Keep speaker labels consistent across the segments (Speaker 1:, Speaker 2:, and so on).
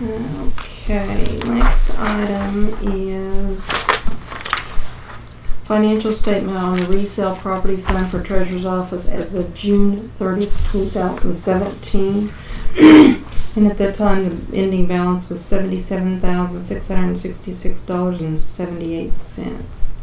Speaker 1: Okay, next item is financial statement on the resale property fund for treasurer's office as of June thirtieth, two thousand seventeen. And at that time, the ending balance was seventy-seven thousand, six hundred and sixty-six dollars and seventy-eight cents.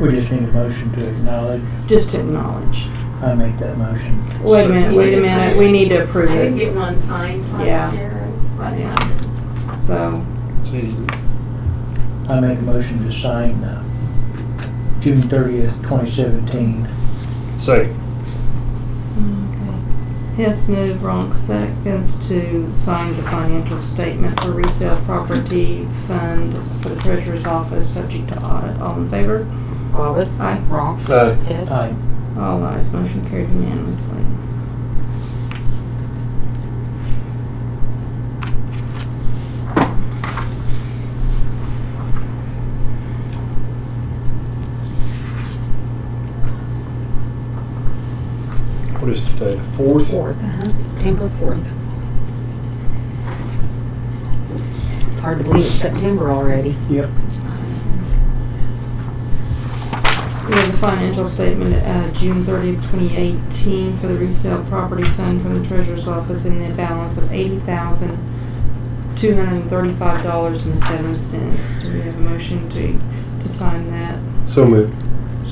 Speaker 2: We just need a motion to acknowledge.
Speaker 1: Just to acknowledge.
Speaker 2: I make that motion.
Speaker 1: Wait a minute, wait a minute, we need to
Speaker 3: I
Speaker 1: approve
Speaker 3: didn't
Speaker 1: it,
Speaker 3: get one signed
Speaker 1: Yeah.
Speaker 3: last year, is what happens.
Speaker 1: so,
Speaker 2: I make a motion to sign uh, June thirtieth, twenty seventeen.
Speaker 1: okay.
Speaker 4: Say,
Speaker 1: Hess moved, Ronk seconds to sign the financial statement for resale property fund for the treasurer's office, subject to audit. All in favor?
Speaker 5: Bobbit,
Speaker 1: Aye.
Speaker 5: wrong,
Speaker 4: uh,
Speaker 5: yes.
Speaker 2: Aye.
Speaker 1: All ayes, motion carried unanimously.
Speaker 4: what is today, the fourth?
Speaker 5: Fourth, uh-huh, September fourth. It's hard to believe it's September already.
Speaker 2: Yep.
Speaker 1: We have the financial statement, uh, June thirtieth, twenty eighteen, for the resale property fund from the treasurer's office in the balance of eighty thousand, two hundred and thirty-five dollars and seven cents. Do we have a motion to, to sign that?
Speaker 4: So moved.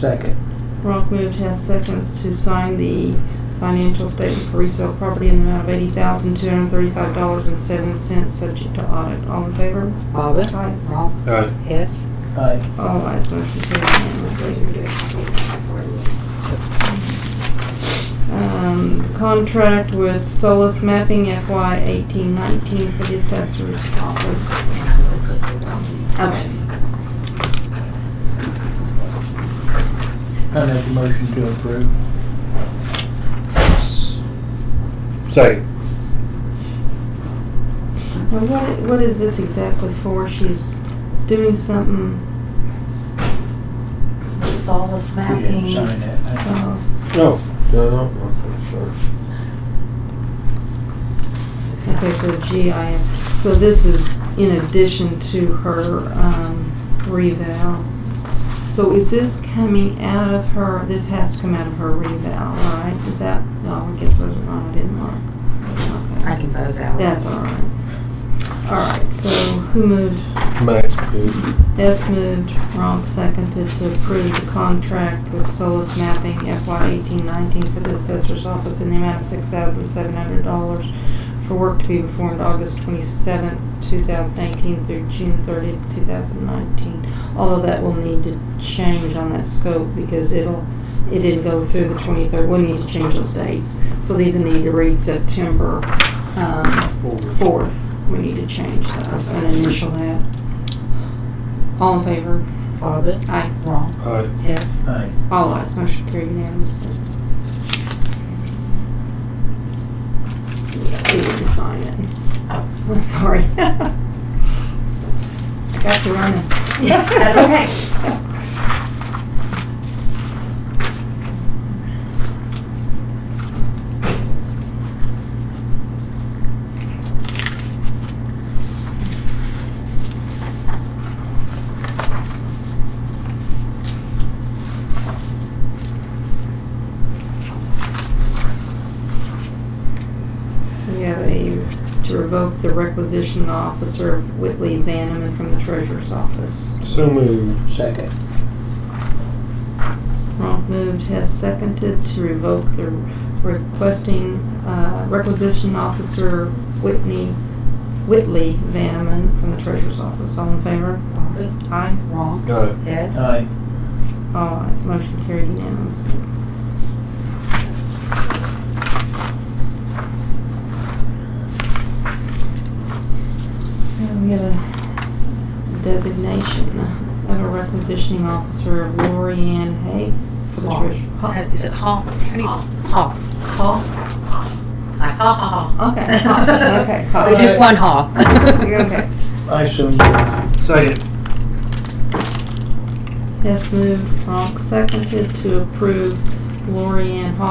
Speaker 2: Second.
Speaker 1: Ronk moved, Hess seconds to sign the financial statement for resale property in the amount of eighty thousand, two hundred and thirty-five dollars and seven cents, subject to audit. All in favor?
Speaker 5: Bobbit,
Speaker 1: Aye.
Speaker 5: wrong,
Speaker 4: Aye.
Speaker 5: yes.
Speaker 2: Aye.
Speaker 1: All ayes, motion carried unanimously. Um, Contract with Solus Mapping FY eighteen nineteen for the assessor's office. Okay.
Speaker 2: I make a motion to approve.
Speaker 4: Say,
Speaker 1: Now, what, what is this exactly for? She's doing something,
Speaker 5: Solace
Speaker 2: We didn't
Speaker 5: mapping.
Speaker 2: sign that.
Speaker 1: uh,
Speaker 4: no. No, okay, sorry.
Speaker 1: okay, for GIS. So this is in addition to her, um, reval. So is this coming out of her, this has to come out of her reval, right? Is that, no, I guess there's one I didn't look.
Speaker 5: I
Speaker 1: Okay.
Speaker 5: can buzz out.
Speaker 1: That's all right. All right, so who moved?
Speaker 4: Max moved.
Speaker 1: S moved, Ronk seconded to approve the contract with Solus Mapping FY eighteen nineteen for the assessor's office in the amount of six thousand seven hundred dollars for work to be performed August twenty-seventh, two thousand eighteen through June thirtieth, two thousand nineteen. Although that will need to change on that scope because it'll, it didn't go through the twenty-third, we'll need to change those dates. So these need to read September, um, fourth, we need to change those and initial that. All in favor?
Speaker 5: Bobbit,
Speaker 1: Aye.
Speaker 5: wrong,
Speaker 4: Aye.
Speaker 5: yes.
Speaker 2: Aye.
Speaker 1: All ayes, motion carried unanimously. Yeah, we need to sign it. Oh, I'm sorry. I got you running.
Speaker 3: Yeah, that's okay.
Speaker 1: We have a, to revoke the requisition of officer of Whitley Vanneman from the treasurer's office.
Speaker 4: So moved.
Speaker 2: Second.
Speaker 1: Ronk moved, Hess seconded to revoke the requesting, uh, requisition officer Whitney, Whitley Vanneman from the treasurer's office. All in favor?
Speaker 5: Bobbit,
Speaker 1: Aye.
Speaker 5: wrong,
Speaker 4: Aye.
Speaker 5: yes.
Speaker 2: Aye.
Speaker 1: All ayes, motion carried unanimously. And we have a designation of a requisitioning officer of Lori Ann Hay for the
Speaker 5: Hall. Uh,
Speaker 1: treasurer.
Speaker 5: Is it Hall? How do you?
Speaker 3: Hall.
Speaker 5: Hall. Like ha ha ha.
Speaker 1: Okay, Hall, okay, Hall.
Speaker 5: But Just one ha.
Speaker 1: Okay.
Speaker 2: I so move.
Speaker 4: Second.
Speaker 1: Hess moved, Ronk seconded to approve Lori Ann Hall